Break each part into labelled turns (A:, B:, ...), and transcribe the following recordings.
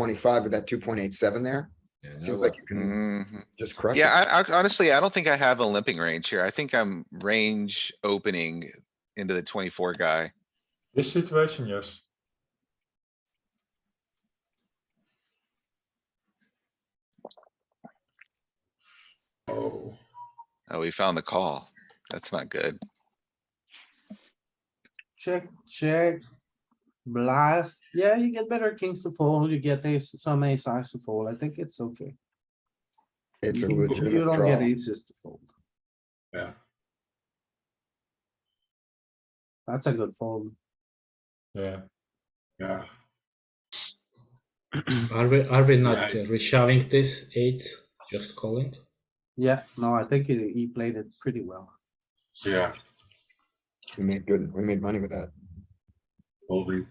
A: twenty-five with that two point eight seven there.
B: Yeah, no
A: Seems like
B: way.
A: you can
C: Mhm.
A: just crush
C: Yeah,
A: it.
C: I, I honestly, I don't think I have a limping range here. I think I'm range opening into the twenty-four guy.
D: This situation, yes.
B: Oh,
C: Oh, we found the call. That's not good.
E: Check, check. Blast. Yeah, you get better kings to fold. You get ace, some ace eyes to fold. I think it's okay.
A: It's a
E: You- You
A: legitimate
E: don't get
A: draw.
E: aces to fold.
B: yeah.
E: That's a good fold.
D: Yeah.
B: Yeah,
F: Are we are we not uh,
B: Nice.
F: reshoving this eight? Just calling.
E: Yeah, no, I think he, he played it pretty well.
B: yeah,
A: We made good, we made money with that.
B: holding.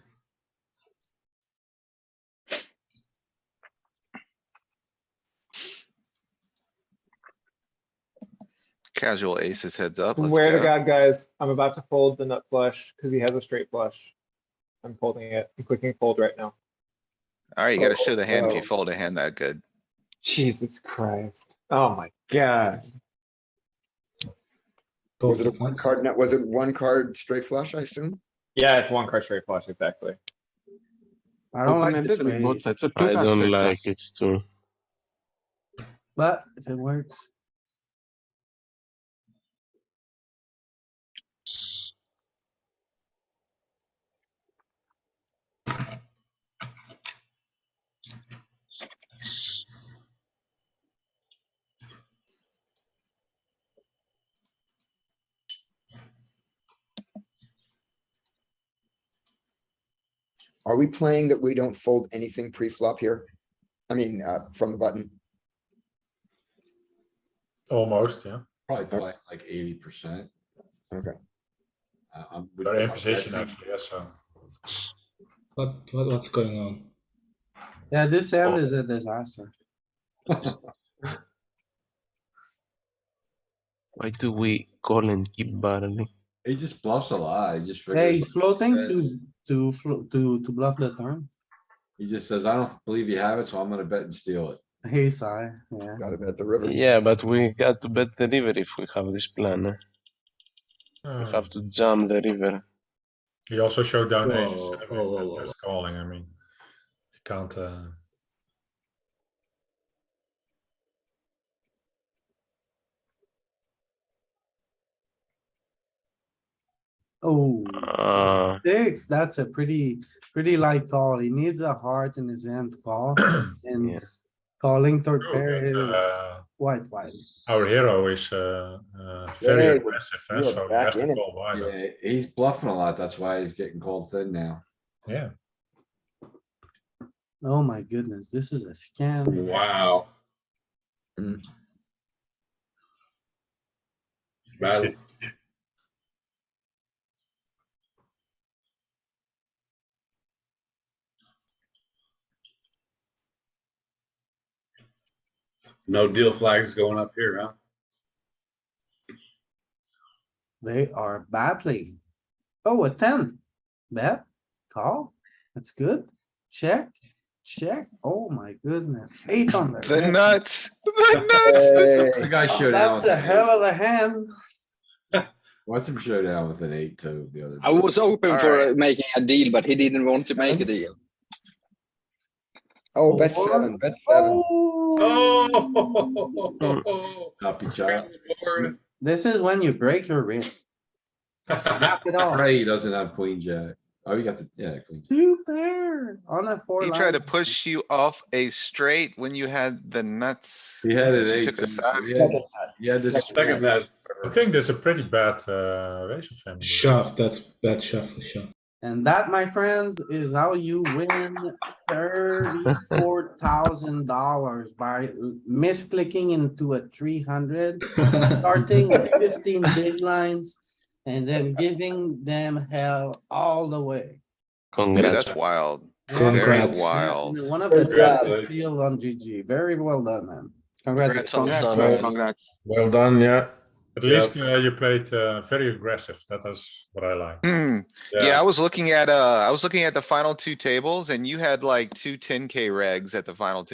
C: Casual aces heads up. Let's
G: Where to
C: go.
G: God, guys, I'm about to fold the nut flush because he has a straight flush. I'm folding it. I'm clicking fold right now.
C: Alright, you gotta show the hand if you
G: Oh.
C: fold a hand that good.
G: Jesus Christ. Oh my god.
F: Both
A: Was it a
F: at
A: one
F: once.
A: card net? Was it one card straight flush, I assume?
G: Yeah, it's one card straight flush, exactly.
E: I don't like this way,
H: I don't like it too.
E: but if it works,
A: Are we playing that we don't fold anything pre-flop here? I mean, uh, from the button.
D: Almost, yeah.
B: Probably play like eighty percent.
A: Okay.
B: Uh, I'm.
D: They're in position
B: I'm
D: actually, yeah, so.
F: What, what what's going on?
E: yeah, this hand is a disaster.
H: Why do we call and keep barreling?
B: He just bluffs a lot. He just
E: Hey,
B: figures,
E: he's floating
B: says.
E: to, to, flo- to, to bluff the turn.
B: he just says, I don't believe you have it, so I'm gonna bet and steal it.
E: Ace high, yeah.
A: Gotta bet the river.
H: Yeah, but we got to bet the river if we have this plan. eh? We
D: Uh,
H: have to jump the river.
D: He also showed down
F: Whoa,
D: aces, I mean,
F: whoa, whoa, whoa.
D: that's calling, I mean. You can't, uh,
E: Oh,
H: Uh,
E: six, that's a pretty, pretty light call. He needs a heart in his hand to call
H: Yeah.
E: and calling third pair
D: true,
E: is
D: but, uh,
E: wide, wide.
D: our hero is, uh, uh, very
A: Yeah,
D: aggressive, eh,
A: you are
D: so he
A: back
D: has to uh,
A: in it.
D: call wider,
B: Yeah, he's bluffing a lot. That's why he's getting called thin now.
D: yeah.
E: Oh my goodness, this is a scam.
B: Wow. Mm-hmm.
A: Mm.
B: Bad.
I: No deal flags going up here, huh?
E: They are battling. Oh, a ten. Bet, call. That's good. Check, check. Oh my goodness, eight on the.
C: The
E: red.
C: nuts, the nuts. This is-
B: The guy showed down.
E: That's
B: with
E: a
B: an eight.
E: hell of a hand.
B: Watch him show down with an eight too. the other.
J: I was open for
C: Alright.
J: uh, making a deal, but he didn't want to make a deal.
A: Oh, bet
E: Four.
A: seven, bet seven.
E: Oh,
I: Oh.
B: Up each
I: Grab
B: other.
I: the board.
E: this is when you break your wrist. That's it all.
B: Pray he doesn't have queen jack. Oh, you got the, yeah, queen. jack.
E: Two pair on a four.
C: He
E: line.
C: tried to push you off a straight when you had the nuts.
B: He had an
C: You
B: eight.
C: took a
B: too.
C: side.
B: He had- he had this.
I: Second best.
D: I think there's a pretty bad, uh, raise of him.
F: Shove. That's bad shuffle. Shove.
E: And that, my friends, is how you win thirty-four thousand dollars by l- misclicking into a three hundred, starting with fifteen big lines and then giving them hell all the way.
C: Dude,
H: congrats.
C: that's wild. Very
F: Congrats.
C: wild.
E: One of the
I: Congrats.
E: best deals on GG. Very well done, man.
J: Congrats on
E: Congratulations.
J: son. Congrats.
D: Well done, yeah. At least uh, you played uh, very aggressive. That is what I like.
C: Hmm, yeah, I was looking at, uh, I was looking at the final two tables and you had like two 10K regs at the final table.